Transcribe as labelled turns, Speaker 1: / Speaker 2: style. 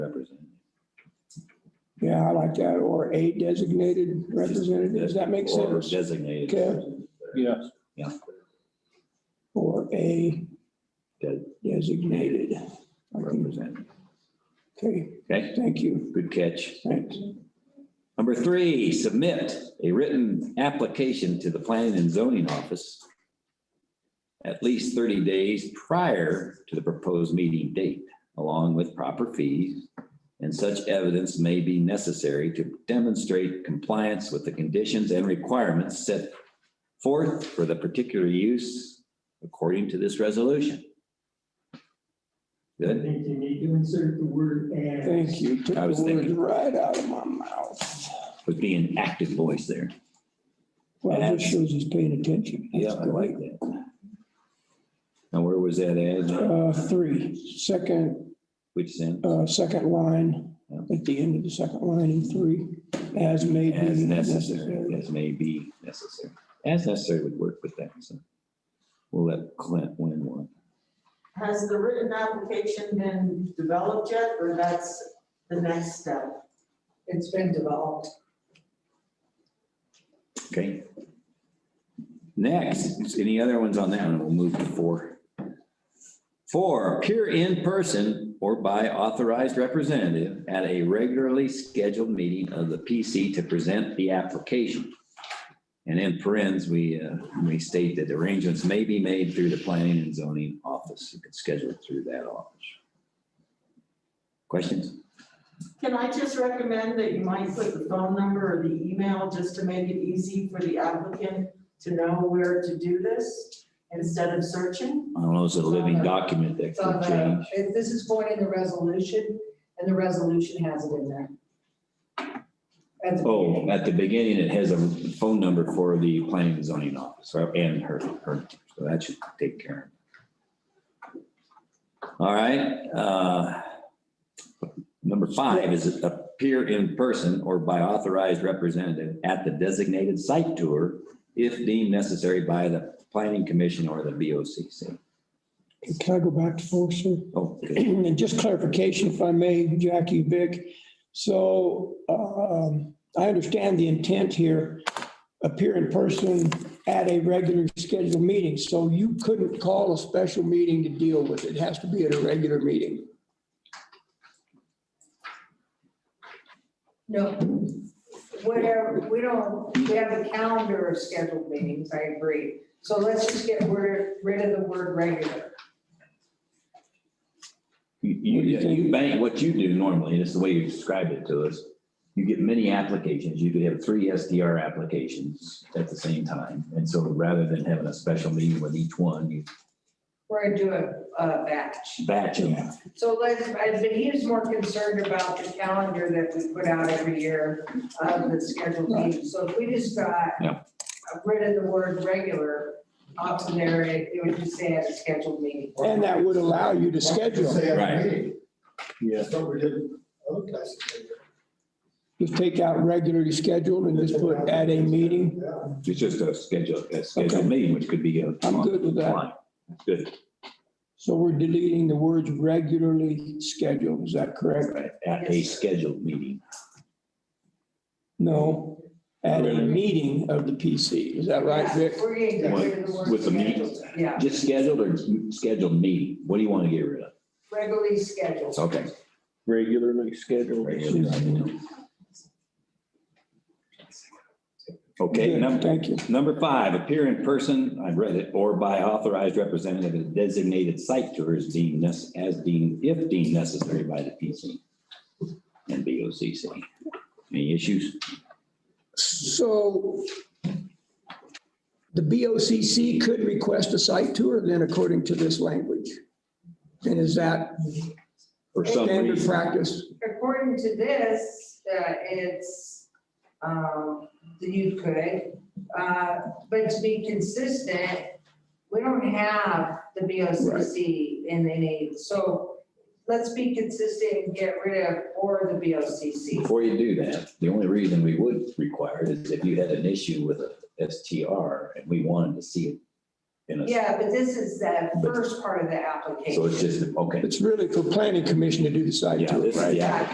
Speaker 1: Yeah, I like that, or a designated representative, does that make
Speaker 2: Or
Speaker 1: sense?
Speaker 2: designated.
Speaker 1: Okay.
Speaker 3: Yeah.
Speaker 2: Yeah.
Speaker 1: Or a
Speaker 2: Good.
Speaker 1: designated. I can-
Speaker 2: Representative.
Speaker 1: Okay,
Speaker 2: Okay,
Speaker 1: thank you,
Speaker 2: good catch.
Speaker 1: thanks.
Speaker 2: Number three, submit a written application to the planning and zoning office at least thirty days prior to the proposed meeting date, along with proper fees. And such evidence may be necessary to demonstrate compliance with the conditions and requirements set forth for the particular use according to this resolution.
Speaker 4: I
Speaker 2: Good?
Speaker 4: think you need to insert the word and.
Speaker 1: Thank you, took
Speaker 2: I was
Speaker 1: the words
Speaker 2: thinking-
Speaker 1: right out of my mouth.
Speaker 2: With being active voice there.
Speaker 1: Well, this shows he's paying attention. That's
Speaker 2: Yeah, I
Speaker 1: good.
Speaker 2: like that. Now, where was that at?
Speaker 1: Uh, three, second,
Speaker 2: Which sentence?
Speaker 1: uh, second line, at the end of the second line in three, as may be
Speaker 2: As necessary,
Speaker 1: necessary.
Speaker 2: as may be necessary. As necessary would work with that, so. We'll let Clint win one.
Speaker 5: Has the written application been developed yet, or that's the next step?
Speaker 6: It's been developed.
Speaker 2: Okay. Next, any other ones on that one? We'll move to four. Four, appear in person or by authorized representative at a regularly scheduled meeting of the PC to present the application. And in parentheses, we, uh, we state that arrangements may be made through the planning and zoning office. You can schedule it through that office. Questions?
Speaker 5: Can I just recommend that you might put the phone number or the email, just to make it easy for the applicant to know where to do this, instead of searching?
Speaker 2: I don't know, it's a living document that
Speaker 6: It's on
Speaker 2: could
Speaker 6: the-
Speaker 2: change.
Speaker 6: it- This is going in the resolution, and the resolution has it in there. At the
Speaker 2: Oh,
Speaker 6: beginning.
Speaker 2: at the beginning, it has a phone number for the planning and zoning office right, and her, her, so that should take care of. it. All right, uh, number five is appear in person or by authorized representative at the designated site tour if deemed necessary by the planning commission or the BOCC.
Speaker 1: Can I go back to four, sir?
Speaker 2: Oh, good.
Speaker 1: And just clarification, if I may, Jackie, Vic. So um, I understand the intent here, appear in person at a regular scheduled meeting. So you couldn't call a special meeting to deal with it. It has to be at a regular meeting.
Speaker 6: No, whatever, we don't, we have a calendar of scheduled meetings, I agree. So let's just get rid, rid of the word regular.
Speaker 2: You, you, you bank, what you do normally, and it's the way you described it to us, you get many applications, you could have three SDR applications at the same time. And so rather than having a special meeting with each one, you
Speaker 6: We're gonna do a, a batch.
Speaker 2: batch them.
Speaker 6: So let's, I- but he is more concerned about the calendar that we put out every year of the scheduled meetings. So if we just got
Speaker 2: Yeah.
Speaker 6: rid of the word regular off of there, it it would just say at a scheduled meeting.
Speaker 1: And that would allow you to schedule.
Speaker 4: Say at the
Speaker 2: Right.
Speaker 4: meeting.
Speaker 3: Yeah.
Speaker 4: That's what we did other places.
Speaker 1: Just take out regularly scheduled and just put at a meeting.
Speaker 4: Yeah.
Speaker 2: It's just a schedule, a
Speaker 1: Okay.
Speaker 2: scheduled meeting, which could be a.
Speaker 1: I'm good with that.
Speaker 2: Fine. Good.
Speaker 1: So we're deleting the words regularly scheduled. Is that correct?
Speaker 2: Right. At a scheduled meeting.
Speaker 1: No, at a meeting of the PC. Is that right,
Speaker 6: Yeah,
Speaker 1: Vic?
Speaker 6: We're gonna get rid of the word.
Speaker 2: With the meeting.
Speaker 6: scheduled. Yeah,
Speaker 2: Just scheduled or scheduled meeting? What do you want to get rid of?
Speaker 6: regularly scheduled.
Speaker 2: It's okay.
Speaker 3: Regularly scheduled.
Speaker 2: Okay,
Speaker 1: Good,
Speaker 2: number,
Speaker 1: Thank you.
Speaker 2: Number five, appear in person, I've read it, or by authorized representative at designated site tour as deemed, nec- as deemed, if deemed necessary by the PC and BOCC. Any issues?
Speaker 1: So the BOCC could request a site tour then according to this language? And is that
Speaker 2: For some
Speaker 1: standard
Speaker 2: reason,
Speaker 1: practice?
Speaker 6: According to this, uh, it's, um, that you could, uh, but to be consistent, we don't have the BOCC in any, so let's be consistent and get rid of or the BOCC.
Speaker 2: before you do that, the only reason we would require it is if you had an issue with a STR and we wanted to see it. in a
Speaker 6: Yeah, but this is the first part of the application.
Speaker 2: So it's just, okay,
Speaker 1: It's really for planning commission to do the site
Speaker 2: yeah,
Speaker 1: tour,
Speaker 2: this is
Speaker 1: right?
Speaker 2: the application.